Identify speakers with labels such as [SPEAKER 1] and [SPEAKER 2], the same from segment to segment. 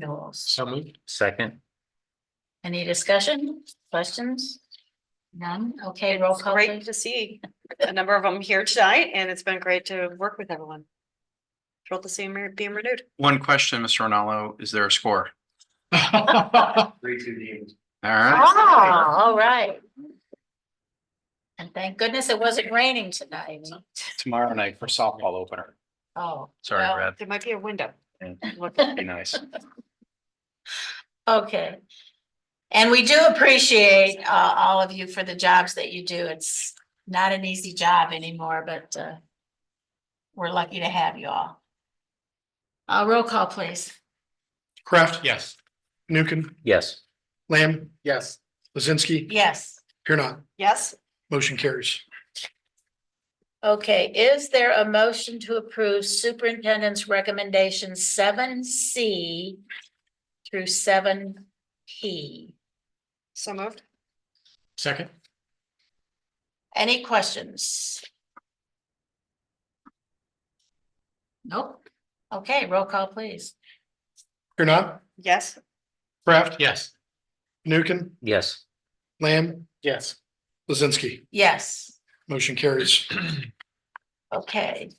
[SPEAKER 1] renewals.
[SPEAKER 2] So moved.
[SPEAKER 3] Second,
[SPEAKER 1] Any discussion, questions? None? Okay, roll
[SPEAKER 4] It's
[SPEAKER 1] call
[SPEAKER 4] great
[SPEAKER 1] please.
[SPEAKER 4] to see a number of them here tonight, and it's been great to work with everyone. Thrilled to see them re- being renewed.
[SPEAKER 5] One question, Mr. Ronaldo, is there a score?
[SPEAKER 2] Three, two, the.
[SPEAKER 5] All right.
[SPEAKER 1] Ah, all right. And thank goodness it wasn't raining tonight.
[SPEAKER 5] Tomorrow night for softball opener.
[SPEAKER 1] Oh.
[SPEAKER 3] sorry,
[SPEAKER 1] well,
[SPEAKER 3] Brad,
[SPEAKER 4] There might be a window.
[SPEAKER 3] Yeah.
[SPEAKER 4] Look,
[SPEAKER 3] be nice.
[SPEAKER 1] Okay. And we do appreciate uh all of you for the jobs that you do. It's not an easy job anymore, but uh. We're lucky to have you all. Uh, roll call, please.
[SPEAKER 6] Kraft,
[SPEAKER 2] Yes.
[SPEAKER 6] Nukin,
[SPEAKER 3] Yes,
[SPEAKER 6] Lamb,
[SPEAKER 2] Yes.
[SPEAKER 6] Lizinski,
[SPEAKER 1] Yes.
[SPEAKER 6] here not,
[SPEAKER 4] Yes,
[SPEAKER 6] motion carries.
[SPEAKER 1] Okay, is there a motion to approve superintendent's recommendation seven C through seven P?
[SPEAKER 4] so moved.
[SPEAKER 6] Second.
[SPEAKER 1] Any questions? Nope. Okay, roll call, please.
[SPEAKER 6] Here not,
[SPEAKER 4] Yes,
[SPEAKER 6] Kraft,
[SPEAKER 2] Yes.
[SPEAKER 6] Nukin,
[SPEAKER 3] yes,
[SPEAKER 6] Lamb,
[SPEAKER 2] Yes.
[SPEAKER 6] Lizinski,
[SPEAKER 1] Yes,
[SPEAKER 6] motion carries.
[SPEAKER 1] okay.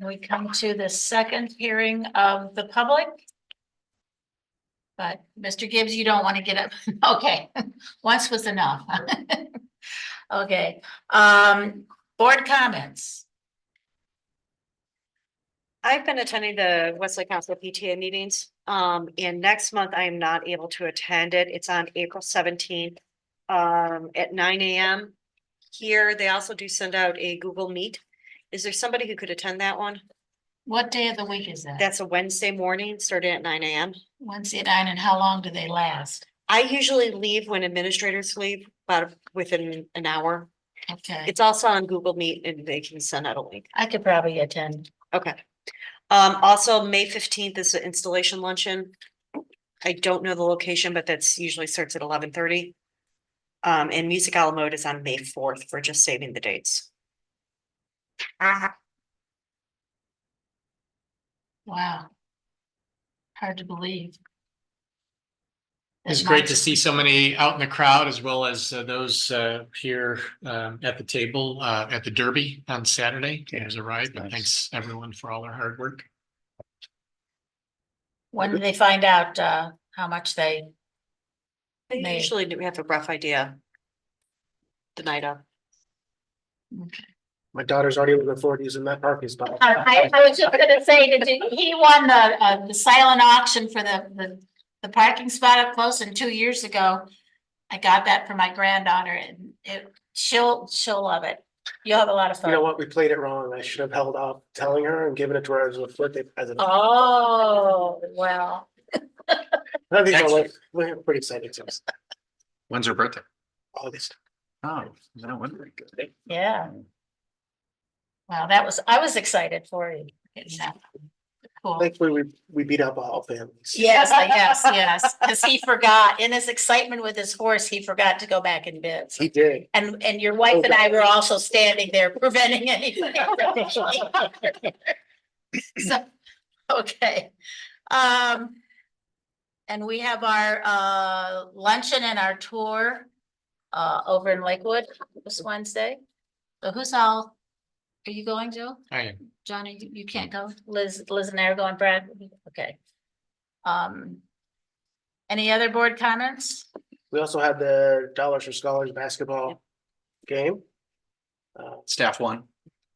[SPEAKER 1] We come to the second hearing of the public. But Mr. Gibbs, you don't want to get up. Okay, once was enough. Okay, um, board comments.
[SPEAKER 4] I've been attending the Wesley Council PTA meetings, um, and next month I am not able to attend it. It's on April seventeenth. Um, at nine AM. Here, they also do send out a Google Meet. Is there somebody who could attend that one?
[SPEAKER 1] What day of the week is that?
[SPEAKER 4] That's a Wednesday morning, starting at nine AM.
[SPEAKER 1] Wednesday at nine and how long do they last?
[SPEAKER 4] I usually leave when administrators leave, about within an hour.
[SPEAKER 1] Okay,
[SPEAKER 4] It's also on Google Meet and they can send out a link.
[SPEAKER 1] I could probably attend.
[SPEAKER 4] Okay. Um, also, May fifteenth is the installation luncheon. I don't know the location, but that's usually starts at eleven thirty. Um, and Music Alamo Mode is on May fourth for just saving the dates.
[SPEAKER 1] Wow. Hard to believe.
[SPEAKER 2] It's
[SPEAKER 1] This
[SPEAKER 2] great
[SPEAKER 1] month.
[SPEAKER 2] to see so many out in the crowd as well as uh, those uh, here um, at the table uh, at the Derby on Saturday. It was a ride, but
[SPEAKER 3] nice.
[SPEAKER 2] thanks everyone for all their hard work.
[SPEAKER 1] When do they find out, uh, how much they,
[SPEAKER 4] They
[SPEAKER 1] May.
[SPEAKER 4] Usually do we have a rough idea. The night of.
[SPEAKER 2] Mm-hmm.
[SPEAKER 7] My daughter's already looking forward to using that parking spot.
[SPEAKER 1] I, I was just gonna say, did you, he won the, uh, the silent auction for the, the, the parking spot up close and two years ago. I got that for my granddaughter and it, she'll, she'll love it. You'll have a lot of
[SPEAKER 7] You know
[SPEAKER 1] fun.
[SPEAKER 7] what? We played it wrong. I should have held off telling her and given it to her as a birthday present. I
[SPEAKER 1] Oh, well,
[SPEAKER 7] think we're like, we're pretty excited. to us.
[SPEAKER 5] When's her birthday?
[SPEAKER 7] All this.
[SPEAKER 5] Oh, no wonder.
[SPEAKER 1] yeah. Wow, that was, I was excited for you. It's, uh, Cool.
[SPEAKER 7] Thankfully, we, we beat up all families.
[SPEAKER 1] Yes, I guess, yes, because he forgot, in his excitement with his horse, he forgot to go back and bid.
[SPEAKER 7] He did.
[SPEAKER 1] And, and your wife and I were also standing there preventing anything. So, okay, um. And we have our, uh, luncheon and our tour, uh, over in Lakewood this Wednesday. So who's all, are you going, Jill?
[SPEAKER 2] I am
[SPEAKER 1] Johnny, you- you can't go. Liz, Liz and I are going, Brad, okay. Um. Any other board comments?
[SPEAKER 7] We also had the Dollars for Scholars basketball game. Uh,
[SPEAKER 5] Staff one.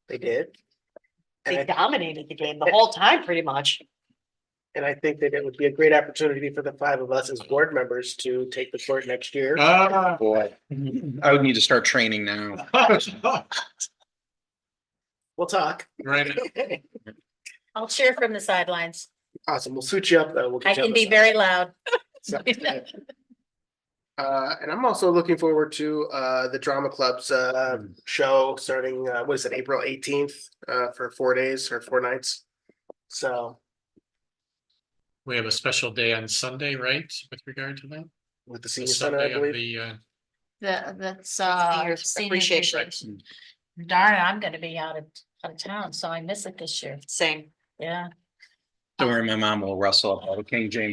[SPEAKER 7] They did. And
[SPEAKER 4] They
[SPEAKER 7] I,
[SPEAKER 4] dominated the game the whole time, pretty much.
[SPEAKER 7] and I think that it would be a great opportunity for the five of us as board members to take the court next year.
[SPEAKER 1] Uh.
[SPEAKER 2] Ah.
[SPEAKER 5] Boy. I would need to start training now.
[SPEAKER 7] We'll talk.
[SPEAKER 2] Right.
[SPEAKER 1] I'll cheer from the sidelines.
[SPEAKER 7] Awesome. We'll suit you up though. We'll get
[SPEAKER 1] I
[SPEAKER 7] you on
[SPEAKER 1] can
[SPEAKER 7] the
[SPEAKER 1] be
[SPEAKER 7] side.
[SPEAKER 1] very loud.
[SPEAKER 7] So- Uh, and I'm also looking forward to, uh, the drama club's, uh,
[SPEAKER 5] Mm. Um,
[SPEAKER 7] show starting, uh, what is it, April eighteenth, uh, for four days or four nights. So
[SPEAKER 2] We have a special day on Sunday, right, with regard to that?
[SPEAKER 7] with the
[SPEAKER 2] The
[SPEAKER 7] senior center, I
[SPEAKER 2] Sunday of
[SPEAKER 7] believe.
[SPEAKER 2] the uh,
[SPEAKER 1] The, that's, uh.
[SPEAKER 4] Senior
[SPEAKER 1] senior
[SPEAKER 4] appreciation.
[SPEAKER 1] appreciation. Darn, it, I'm gonna be out of, out of town, so I miss it this year.
[SPEAKER 4] Same.
[SPEAKER 1] Yeah.
[SPEAKER 5] Don't worry, my mom will wrestle up all the King James